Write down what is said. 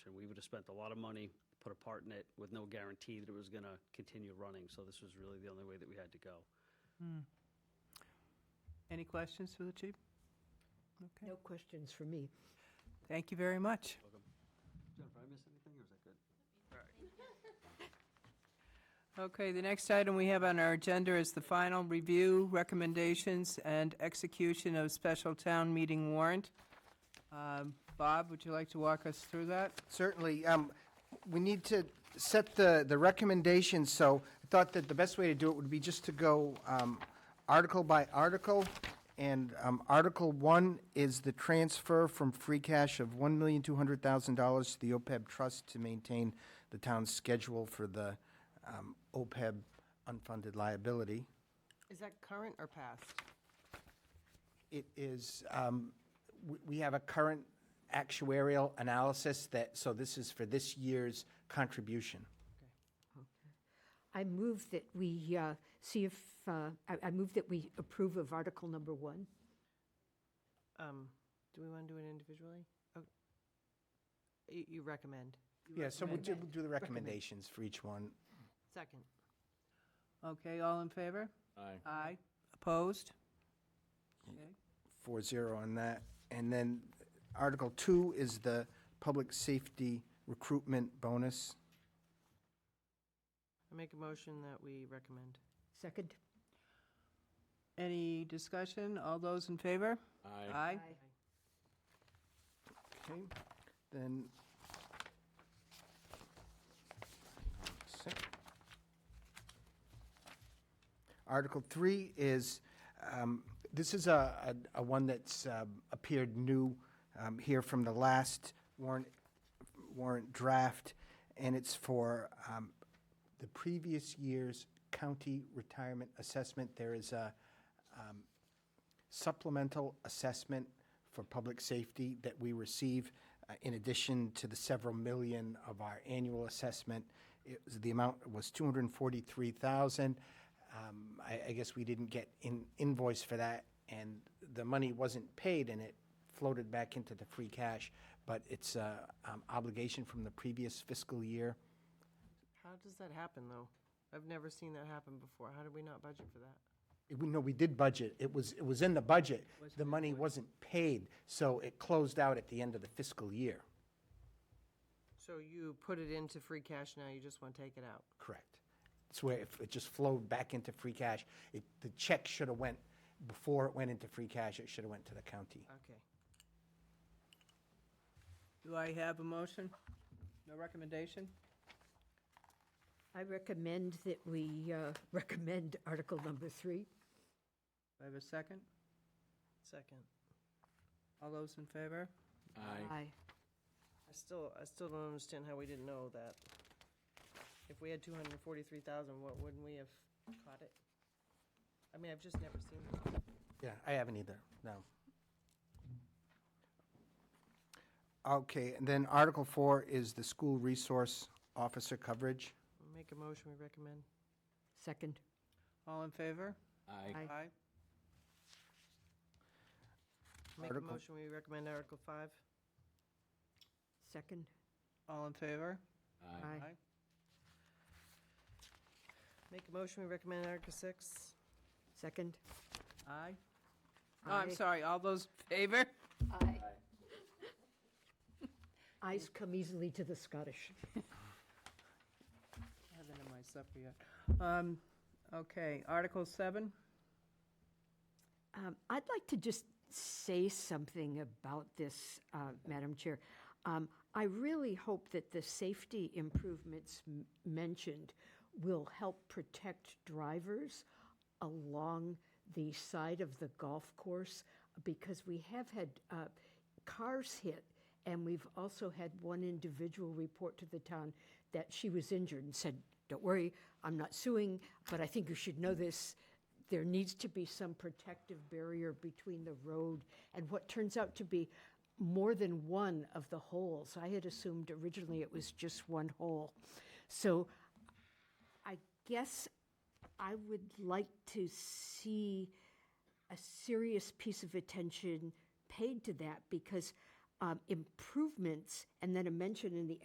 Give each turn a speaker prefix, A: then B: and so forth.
A: just spent a lot of money, put a part in it with no guarantee that it was going to continue running. So this was really the only way that we had to go.
B: Any questions for the chief? Okay,
C: No questions for me.
B: thank you very much.
A: Jennifer, I miss anything or is that good?
B: Okay, the next item we have on our agenda is the final review, recommendations, and execution of special town meeting warrant. Um, Bob, would you like to walk us through that?
D: Certainly. um, We need to set the, the recommendations, so I thought that the best way to do it would be just to go um, article by article. And um, Article 1 is the transfer from free cash of $1,200,000 to the OPEB trust to maintain the town's schedule for the um, OPEB unfunded liability.
E: Is that current or past?
D: It is, um, we- we have a current actuarial analysis that, so this is for this year's contribution.
C: I move that we uh, see if, uh, I I move that we approve of Article Number One.
E: Um, Do we want to do it individually? Oh, You you recommend. You
D: Yeah, so we'll
E: recommend.
D: do, we'll do the recommendations for each one.
E: Second.
B: Okay, all in favor?
F: Aye.
B: Aye. Opposed?
D: Four zero on that. And then Article two is the public safety recruitment bonus.
E: I make a motion that we recommend.
C: Second?
B: Any discussion? All those in favor?
F: Aye.
B: Aye.
D: Okay, then. Sec- Article three is, um, this is a, a- a one that's um, appeared new um, here from the last warrant, warrant draft, and it's for um, the previous year's county retirement assessment. There is a um, supplemental assessment for public safety that we receive uh, in addition to the several million of our annual assessment. It was, the amount was two hundred and forty-three thousand. Um, I, I guess we didn't get in invoice for that and the money wasn't paid and it floated back into the free cash. But it's a, um, obligation from the previous fiscal year.
E: How does that happen, though? I've never seen that happen before. How did we not budget for that?
D: It- We, no, we did budget. It was, it was in the budget. The money wasn't paid, so it closed out at the end of the fiscal year.
E: So you put it into free cash now, you just want to take it out?
D: Correct. It's where if it just flowed back into free cash. It, the check should have went, before it went into free cash, it should have went to the county.
E: Okay.
B: Do I have a motion? No recommendation?
C: I recommend that we uh, recommend Article Number Three.
B: Do I have a second?
E: Second.
B: All those in favor?
F: Aye.
E: I still, I still don't understand how we didn't know that. If we had 243,000, what, wouldn't we have caught it? I mean, I've just never seen it.
D: Yeah, I haven't either, no. Okay, and then Article Four is the school resource officer coverage.
E: Make a motion, we recommend.
C: Second?
B: All in favor?
F: Aye.
C: Aye.
B: Aye.
E: Make a
D: Article-
E: motion, we recommend Article 5.
C: Second?
B: All in favor?
F: Aye.
E: Make a motion, we recommend Article 6.
C: Second?
B: Aye. Oh, I'm
C: Aye.
B: sorry, all those in favor?
C: Eyes come easily to the Scottish.
B: I haven't had my supper yet. Um, okay, Article seven,
C: Um, I'd like to just say something about this, uh, Madam Chair. Um, I really hope that the safety improvements m- mentioned will help protect drivers along the side of the golf course because we have had uh, cars hit and we've also had one individual report to the town that she was injured and said, Don't worry, I'm not suing, but I think you should know this there needs to be some protective barrier between the road and what turns out to be more than one of the holes. I had assumed originally it was just one hole. So I guess I would like to see a serious piece of attention paid to that because um, improvements, and then a mention in the